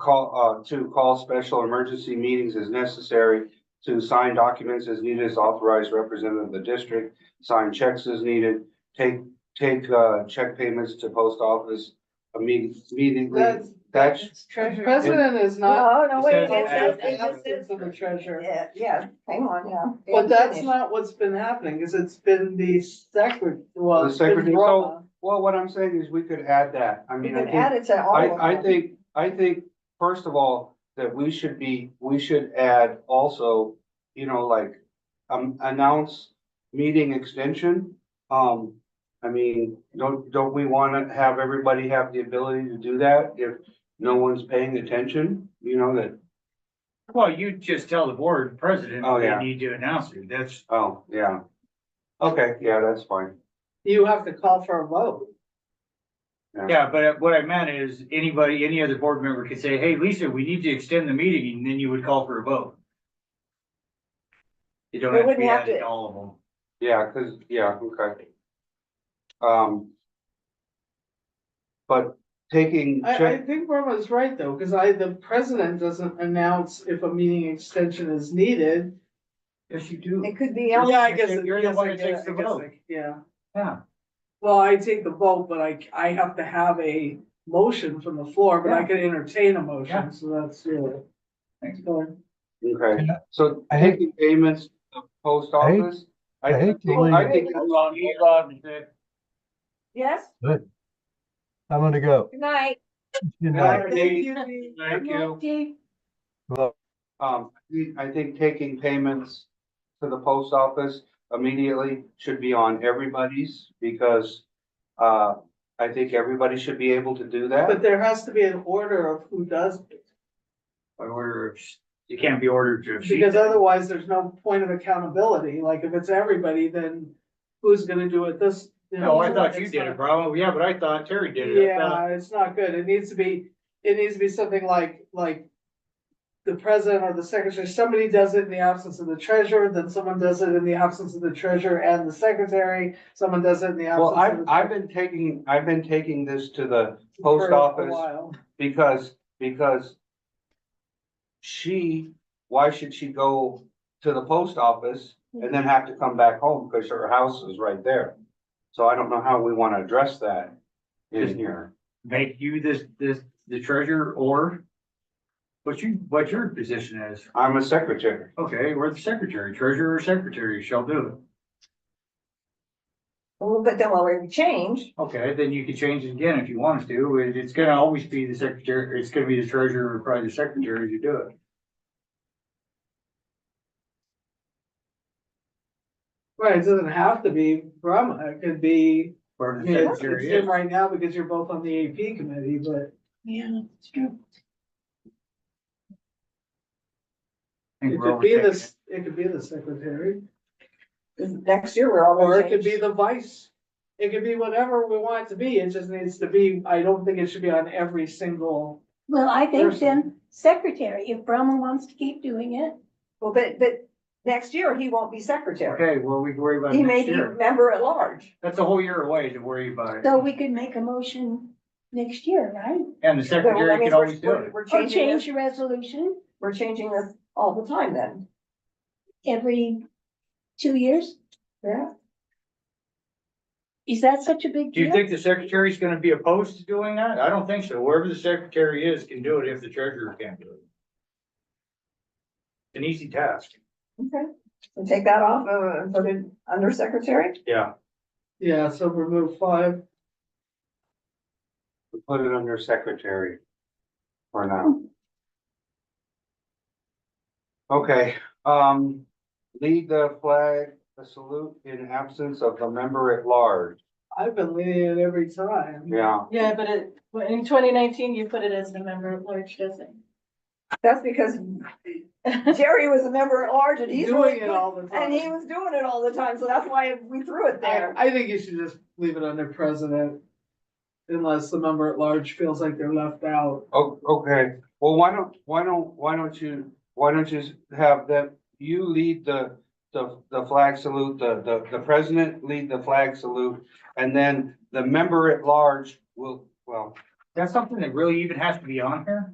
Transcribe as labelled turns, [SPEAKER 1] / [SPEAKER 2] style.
[SPEAKER 1] Call, uh, to call special emergency meetings as necessary. To sign documents as needed as authorized representative of the district, sign checks as needed, take, take, uh, check payments to post office. imme- Immediately,
[SPEAKER 2] That's-
[SPEAKER 1] that's,
[SPEAKER 2] It's treasure. President is not.
[SPEAKER 3] No, no, wait,
[SPEAKER 1] It
[SPEAKER 3] it
[SPEAKER 1] says
[SPEAKER 3] says,
[SPEAKER 1] add-
[SPEAKER 3] it just says,
[SPEAKER 2] Absence of the treasurer.
[SPEAKER 3] yeah, yeah, hang on, yeah.
[SPEAKER 2] But
[SPEAKER 3] I'm
[SPEAKER 2] that's
[SPEAKER 3] finished.
[SPEAKER 2] not what's been happening, is it's been the secret, well,
[SPEAKER 1] The
[SPEAKER 2] it's been
[SPEAKER 1] secretary- so-
[SPEAKER 2] Roma.
[SPEAKER 1] well, what I'm saying is we could add that. I
[SPEAKER 3] You
[SPEAKER 1] mean, I
[SPEAKER 3] can
[SPEAKER 1] think.
[SPEAKER 3] add it to all of them.
[SPEAKER 1] I, I think, I think, first of all, that we should be, we should add also, you know, like, um, announce meeting extension. Um, I mean, don't, don't we wanna have everybody have the ability to do that if no one's paying attention? You know, that,
[SPEAKER 4] Well, you just tell the board president
[SPEAKER 1] Oh,
[SPEAKER 4] they
[SPEAKER 1] yeah.
[SPEAKER 4] need to announce it. That's,
[SPEAKER 1] oh, yeah. Okay, yeah, that's fine.
[SPEAKER 2] You have to call for a vote.
[SPEAKER 4] yeah, but uh, what I meant is anybody, any other board member could say, hey, Lisa, we need to extend the meeting, and then you would call for a vote. You don't
[SPEAKER 3] We
[SPEAKER 4] have to
[SPEAKER 3] wouldn't
[SPEAKER 4] be
[SPEAKER 3] have
[SPEAKER 4] added
[SPEAKER 3] to-
[SPEAKER 4] to all of them.
[SPEAKER 1] Yeah, cause, yeah, okay. Um. But taking.
[SPEAKER 2] I,
[SPEAKER 1] check-
[SPEAKER 2] I think Roma's right though, because I, the president doesn't announce if a meeting extension is needed.
[SPEAKER 4] Yes, you do.
[SPEAKER 3] It could be,
[SPEAKER 2] Yeah,
[SPEAKER 3] el-
[SPEAKER 2] I guess.
[SPEAKER 4] You're the
[SPEAKER 2] I guess
[SPEAKER 4] one
[SPEAKER 2] I
[SPEAKER 4] that
[SPEAKER 2] get it,
[SPEAKER 4] takes the
[SPEAKER 2] I guess
[SPEAKER 4] vote.
[SPEAKER 2] I- Yeah,
[SPEAKER 4] Yeah,
[SPEAKER 2] well, I take the vote, but I, I have to have a motion from the floor, but I
[SPEAKER 4] Yeah.
[SPEAKER 2] can entertain a
[SPEAKER 4] Yeah.
[SPEAKER 2] motion, so that's really.
[SPEAKER 4] Thanks.
[SPEAKER 2] Good.
[SPEAKER 1] Okay, so
[SPEAKER 5] I hate-
[SPEAKER 1] taking payments to the post
[SPEAKER 5] I hate-
[SPEAKER 1] office?
[SPEAKER 5] I hate to
[SPEAKER 1] think- I
[SPEAKER 5] leave.
[SPEAKER 1] think,
[SPEAKER 4] hold on, hold on.
[SPEAKER 3] yes,
[SPEAKER 5] I'm gonna go.
[SPEAKER 3] good night.
[SPEAKER 5] Good
[SPEAKER 1] Yeah.
[SPEAKER 5] night.
[SPEAKER 2] Thank you.
[SPEAKER 3] Good
[SPEAKER 4] Thank
[SPEAKER 3] night,
[SPEAKER 4] you.
[SPEAKER 3] Dee.
[SPEAKER 5] Love.
[SPEAKER 1] um, I think taking payments to the post office immediately should be on everybody's because uh, I think everybody should be able to do
[SPEAKER 2] But
[SPEAKER 1] that.
[SPEAKER 2] there has to be an order of who does, it,
[SPEAKER 4] By order of, you can't be ordered to. exceed
[SPEAKER 2] because
[SPEAKER 4] that.
[SPEAKER 2] otherwise there's no point of accountability, like if it's everybody, then who's gonna do it this? you know,
[SPEAKER 4] No, I thought you
[SPEAKER 2] it's
[SPEAKER 4] did
[SPEAKER 2] not-
[SPEAKER 4] it, Bravo. Yeah, but I thought Terry did it. I thought-
[SPEAKER 2] Yeah, it's not good, it needs to be, it needs to be something like, like. The president or the secretary, somebody does it in the absence of the treasurer, then someone does it in the absence of the treasurer and the secretary, someone does it in the absence
[SPEAKER 1] Well,
[SPEAKER 2] of.
[SPEAKER 1] I've,
[SPEAKER 2] the
[SPEAKER 1] I've been taking, I've been taking this to the
[SPEAKER 2] treasurer
[SPEAKER 1] post
[SPEAKER 2] for a
[SPEAKER 1] office
[SPEAKER 2] while.
[SPEAKER 1] because, because she, why should she go to the post office and then have to come back home because her house is right there? So I don't know how we want to address that in here.
[SPEAKER 4] Make you this, this, the treasurer or what you, what your position is.
[SPEAKER 1] I'm a secretary.
[SPEAKER 4] Okay, we're the secretary, treasurer or secretary shall do
[SPEAKER 3] Well, but then we'll change,
[SPEAKER 4] it. Okay, then you can change it again if you want us to. It- It's gonna always be the secretary, it's gonna be the treasurer or probably the secretary to do it.
[SPEAKER 2] Right, it doesn't have to be Brahma, it could be,
[SPEAKER 4] Or
[SPEAKER 2] I
[SPEAKER 4] the
[SPEAKER 2] mean, it's, it's
[SPEAKER 4] secretary
[SPEAKER 2] him
[SPEAKER 4] is.
[SPEAKER 2] right now because you're both on the AP committee, but.
[SPEAKER 3] yeah, it's true.
[SPEAKER 4] I think
[SPEAKER 2] It
[SPEAKER 4] we're
[SPEAKER 2] could be
[SPEAKER 4] overtaking
[SPEAKER 2] this, it could be the secretary,
[SPEAKER 3] Next year, we're all
[SPEAKER 2] or
[SPEAKER 3] gonna
[SPEAKER 2] it could be
[SPEAKER 3] change.
[SPEAKER 2] the vice. It could be whatever we want it to be, it just needs to be, I don't think it should be on every single.
[SPEAKER 6] Well, I think then
[SPEAKER 2] Person.
[SPEAKER 6] secretary, if Brahma wants to keep doing it,
[SPEAKER 3] Well, but, but next year, he won't be secretary.
[SPEAKER 4] Okay, well, we can worry about it
[SPEAKER 3] He may
[SPEAKER 4] next
[SPEAKER 3] be
[SPEAKER 4] year.
[SPEAKER 3] member at large.
[SPEAKER 4] That's a whole year away to worry about
[SPEAKER 6] so
[SPEAKER 4] it.
[SPEAKER 6] we could make a motion next year, right?
[SPEAKER 4] And the
[SPEAKER 3] But well, that
[SPEAKER 4] secretary
[SPEAKER 3] means
[SPEAKER 4] can
[SPEAKER 3] we're-
[SPEAKER 4] always do
[SPEAKER 3] we're-
[SPEAKER 4] it.
[SPEAKER 3] We're
[SPEAKER 6] Or
[SPEAKER 3] changing
[SPEAKER 6] change
[SPEAKER 3] this,
[SPEAKER 6] the resolution
[SPEAKER 3] we're changing this all the time then.
[SPEAKER 6] every two years?
[SPEAKER 3] Yeah.
[SPEAKER 6] Is that such a big
[SPEAKER 4] Do you
[SPEAKER 6] deal?
[SPEAKER 4] think the secretary's gonna be opposed to doing that? I don't think so. Wherever the secretary is can do it if the treasurer can't do it. It's An easy task.
[SPEAKER 3] Okay. So take that off, uh, and put it under secretary?
[SPEAKER 4] Yeah.
[SPEAKER 2] Yeah, so remove five,
[SPEAKER 1] Put it under secretary for now. Okay, um, lead the flag, a salute in absence of the member at large.
[SPEAKER 2] I've been leaning it every time.
[SPEAKER 1] Yeah,
[SPEAKER 7] Yeah, but it, well, in twenty nineteen, you put it as the member of large, doesn't?
[SPEAKER 3] That's because Jerry was a member at large and he's.
[SPEAKER 2] Doing it all the
[SPEAKER 3] And he
[SPEAKER 2] time.
[SPEAKER 3] was doing it all the time, so that's why we threw it
[SPEAKER 2] I,
[SPEAKER 3] there.
[SPEAKER 2] I think you should just leave it under president. Unless the member at large feels like they're left out.
[SPEAKER 1] oh, okay, well, why don't, why don't, why don't you, why don't you have them, you lead the. The, the flag salute, the, the, the president lead the flag salute, and then the member at large will, well,
[SPEAKER 4] That's something that really even has to be on here?